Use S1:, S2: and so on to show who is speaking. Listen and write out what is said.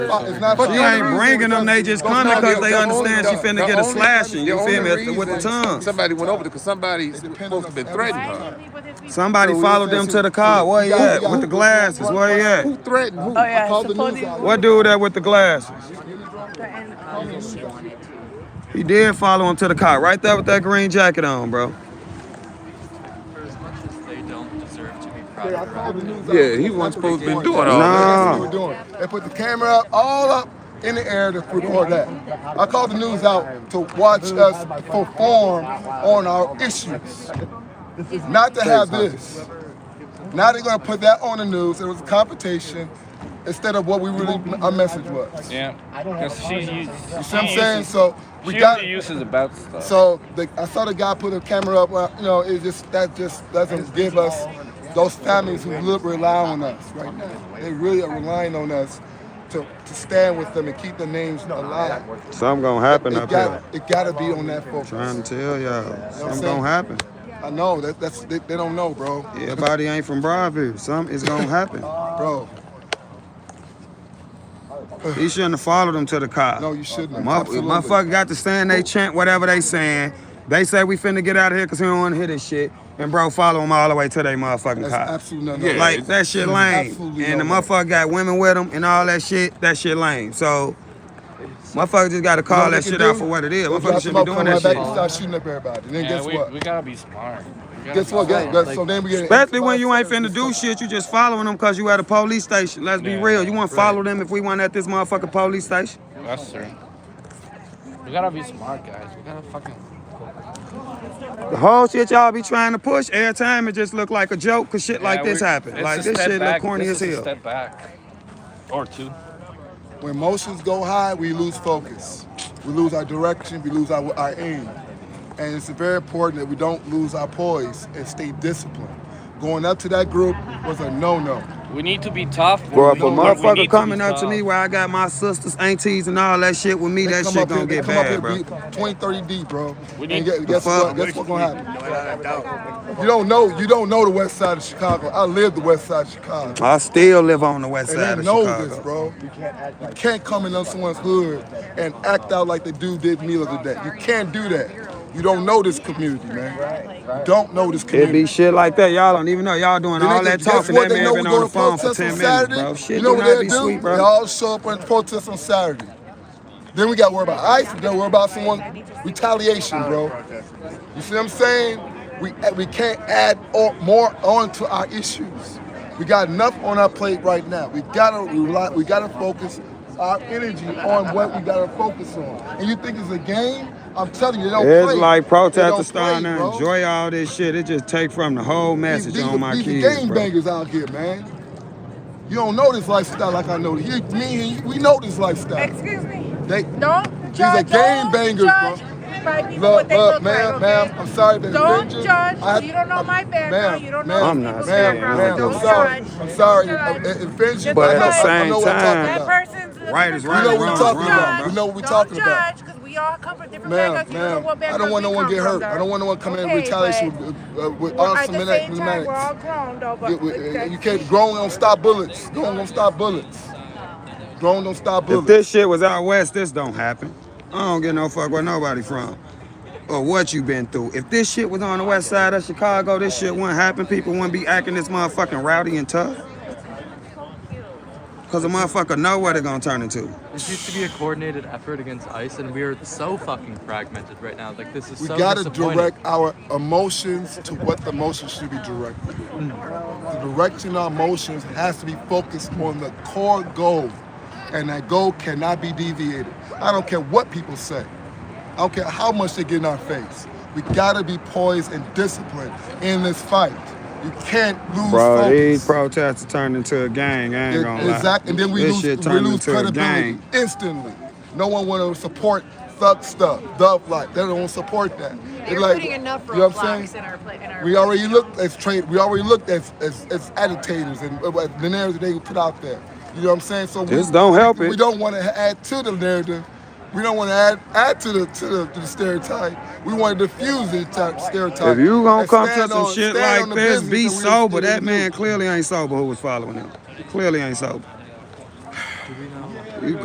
S1: It's not
S2: But
S1: for
S2: you
S1: that
S2: ain't
S1: reason.
S2: bringing them, they just
S1: That's
S2: coming
S1: not
S2: 'cause
S1: the-
S2: they
S1: the
S2: understand
S1: only-
S2: she finna
S1: the
S2: get a
S1: only-
S2: slashing, you
S1: the
S2: feel me,
S1: only
S2: with the
S1: reason
S2: tongue.
S1: Somebody went over there because somebody's
S3: depend on
S1: supposed to been
S3: us.
S1: threatening
S3: Why
S1: her.
S3: didn't he with his people?
S2: Somebody
S1: So we
S2: followed them
S1: said
S2: to
S1: she-
S2: the car. Where he
S1: Y'all-
S2: at?
S1: y'all-
S2: With the glasses. Where he at?
S1: Who threatened who?
S4: Oh yeah,
S3: I called the news
S4: supposedly.
S3: out.
S2: What dude that with the glasses?
S4: And, um, she wanted to.
S2: He did follow him to the car. Right there with that green jacket on, bro.
S5: For as much as they don't deserve to be proud
S3: Yeah, I
S5: of
S3: called the news out.
S1: Yeah, he wasn't supposed to been doing all that.
S3: That's what
S2: No.
S3: we were doing. They put the camera up, all up in the air to record that. I called the news out to watch us perform on our issues. Not to have this. Now they're gonna put that on the news. It was a competition instead of what we really, our message was. You
S6: Yeah. Because she used. You
S3: see what I'm saying? So we got,
S6: She uses the bad stuff.
S3: so the, I saw the guy put a camera up, well, you know, it just, that just doesn't give us those families who live, rely on us right now. They really are relying on us to, to stand with them and keep their names alive.
S2: Something gonna happen
S3: It
S2: up here.
S3: gotta, it gotta be on that
S2: Trying
S3: focus.
S2: to tell y'all. Something gonna happen.
S3: I know, that, that's, they, they don't know, bro.
S2: Everybody ain't from Broadview. Something is gonna happen.
S3: Bro,
S2: He shouldn't have followed them to the car.
S3: no, you shouldn't. have.
S2: Mother-
S3: Absolutely.
S2: Motherfucker got to stand they chant whatever they saying. They say we finna get out of here because we don't wanna hear this shit. And bro, follow them all the way to their motherfucking
S3: That's
S2: car.
S3: absolutely nothing.
S1: Yeah.
S2: Like that shit lame.
S3: Absolutely
S2: And the
S3: no way.
S2: motherfucker got women with him and all that shit. That shit lame. So motherfucker just gotta
S3: You know
S2: call
S3: what
S2: that
S3: they
S2: shit
S3: can
S2: out
S3: do?
S2: for what it is.
S3: We'll
S2: Motherfucker
S3: drop
S2: shouldn't
S3: them
S2: be
S3: off,
S2: doing
S3: come
S2: that
S3: right back and
S2: shit.
S3: start shooting up everybody. And then
S6: yeah,
S3: guess
S6: we,
S3: what?
S6: we gotta be smart. We gotta
S3: Guess
S6: be
S3: what?
S6: smart.
S3: Guess, guess, so then we get
S2: Especially when you ain't finna do shit, you just following them cause you at a police station. Let's be
S6: Yeah,
S2: real. You wanna
S6: right.
S2: follow them if we want at this motherfucking police station?
S6: That's true. We gotta be smart, guys. We gotta fucking.
S2: The whole shit y'all be trying to push every time it just look like a joke cause shit like
S6: Yeah,
S2: this
S6: we-
S2: happen.
S6: it's
S2: Like
S6: a
S2: this
S6: step
S2: shit look
S6: back.
S2: corny as
S6: This is a
S2: hell.
S6: Step back. Or two.
S3: When emotions go high, we lose focus. We lose our direction, we lose our, our aim. And it's very important that we don't lose our poise and stay disciplined. Going up to that group was a no-no.
S6: We need to be tough. when
S2: Bro,
S6: we
S2: if a
S6: know where we need
S2: motherfucker
S6: be
S2: coming up to
S6: tough.
S2: me where I got my sisters, aunties, and all that shit with me, that shit gonna
S3: they
S2: get
S3: come up
S2: bad, bro.
S3: here deep, 20, 30 deep, bro.
S6: We
S3: and
S6: need-
S3: guess, guess what?
S2: fuck?
S3: Guess what's gonna happen? You don't know. You don't know the west side of Chicago. I live the west side of Chicago.
S2: I still live on the west
S3: And
S2: side
S3: they
S2: of
S3: know
S2: Chicago.
S3: this, bro. You can't, come into someone's hood and act out like the dude did me the other day. You can't do that. You don't know this community, man. You don't know this
S2: It be
S3: community.
S2: shit like that. Y'all don't even know. Y'all doing
S3: Then they
S2: all
S3: can-
S2: that
S3: guess
S2: talking.
S3: what? They
S2: That man
S3: know we're
S2: been on
S3: going
S2: the
S3: to
S2: phone for
S3: protest on
S2: 10 minutes,
S3: Saturday.
S2: bro. Shit
S3: You know
S2: do
S3: what
S2: not
S3: they'll
S2: be
S3: do?
S2: sweet,
S3: They
S2: bro.
S3: all show up and protest on Saturday. Then we got to worry about ICE. Then we worry about someone retaliation, bro. You see what I'm saying? We we can't add or, more on to our issues. We got enough on our plate right now. We gotta rely, we gotta focus our energy on what we gotta focus on. And you think it's a game? I'm telling you, they don't
S2: It's
S3: play.
S2: like
S3: They don't
S2: protesters starting
S3: play,
S2: to
S3: bro.
S2: enjoy all this shit. It just take from the whole
S3: These-
S2: message
S3: these
S2: on
S3: the-
S2: my
S3: these the
S2: kids,
S3: game
S2: bro.
S3: bangers out here, man. You don't know this lifestyle like I know. it. You, me, and you, we know this lifestyle.
S4: Excuse me.
S3: They,
S4: Don't
S3: These
S4: judge.
S3: are game
S4: don't
S3: bangers, bro.
S4: judge By people
S3: Look,
S4: what they
S3: look,
S4: look
S3: ma'am,
S4: like,
S3: ma'am,
S4: okay?
S3: I'm sorry to
S4: Don't
S3: offend you.
S4: judge.
S3: I-
S4: you don't know my
S3: Ma'am,
S4: background. You don't know
S3: ma'am,
S2: I'm
S4: these
S2: not
S4: people's
S2: saying
S3: Ma'am,
S2: Yeah, I
S4: background.
S3: ma'am,
S2: don't
S3: I'm
S4: Don't
S3: sorry.
S4: judge.
S3: I'm sorry.
S4: Don't
S3: I-
S4: judge.
S3: It offends you,
S4: Just
S3: but I
S2: But
S3: know,
S2: at the
S3: I know
S2: same
S3: what I'm
S2: time-
S3: talking
S2: That
S4: That
S3: about.
S4: person's a
S2: Right is
S4: different
S3: You
S2: right,
S3: know
S4: color.
S3: what we're
S4: Don't
S3: talking about.
S4: judge.
S3: We know what we're
S4: Don't
S3: talking about.
S4: judge, 'cause we all come from different
S3: Ma'am,
S4: backgrounds. You don't know
S3: ma'am,
S4: what
S3: I
S4: backgrounds
S3: don't want
S4: we
S3: no one
S4: come
S3: get
S4: from,
S3: hurt. I
S4: though.
S3: don't want no one coming in
S4: Okay,
S3: retaliation
S4: but-
S3: with, uh, with
S4: Well, at
S3: arms
S4: the same
S3: and
S4: time, we're all grown though, but
S3: You, we-
S4: but-
S3: you can't, grown don't stop bullets. Grown don't stop bullets. Grown don't stop
S2: If
S3: bullets.
S2: this shit was out west, this don't happen. I don't give no fuck where nobody from or what you been through. If this shit was on the west side of Chicago, this shit wouldn't happen. People wouldn't be acting this motherfucking rowdy and tough. Cause a motherfucker know what it gonna turn into.
S5: This used to be a coordinated effort against ICE, and we are so fucking fragmented right now. Like this is
S3: We
S5: so
S3: gotta
S5: disappointing.
S3: direct our emotions to what the emotions should be directed. The direction of our emotions has to be focused on the core goal, and that goal cannot be deviated. I don't care what people say. I don't care how much they get in our face. We gotta be poised and disciplined in this fight. You can't lose
S2: Bro, these
S3: focus.
S2: protests turned into a gang. I ain't
S3: It-
S2: gonna lie.
S3: E- exact, and then we
S2: this
S3: lose,
S2: shit
S3: we
S2: turned
S3: lose
S2: into a
S3: credibility
S2: gang.
S3: instantly. No one want to support thug stuff, thug like they don't support that. They're
S7: They're
S3: like,
S7: putting enough
S3: you know what I'm
S7: roadblocks
S3: saying?
S7: in our pla- in our.
S3: We already looked as trade. We already looked as as, as agitators and uh, the narrative they put out there. You know what I'm saying? So we,
S2: This don't help
S3: we
S2: it.
S3: don't want to add to the narrative. We don't want to add add to the to the, to the stereotype. We want to diffuse the type, stereotype.
S2: If you gonna
S3: Uh, and
S2: come to
S3: stand
S2: some
S3: on-
S2: shit
S3: stand on
S2: like
S3: the
S2: this, be
S3: business that we-
S2: sober. That man clearly ain't sober who was following him. Clearly ain't sober.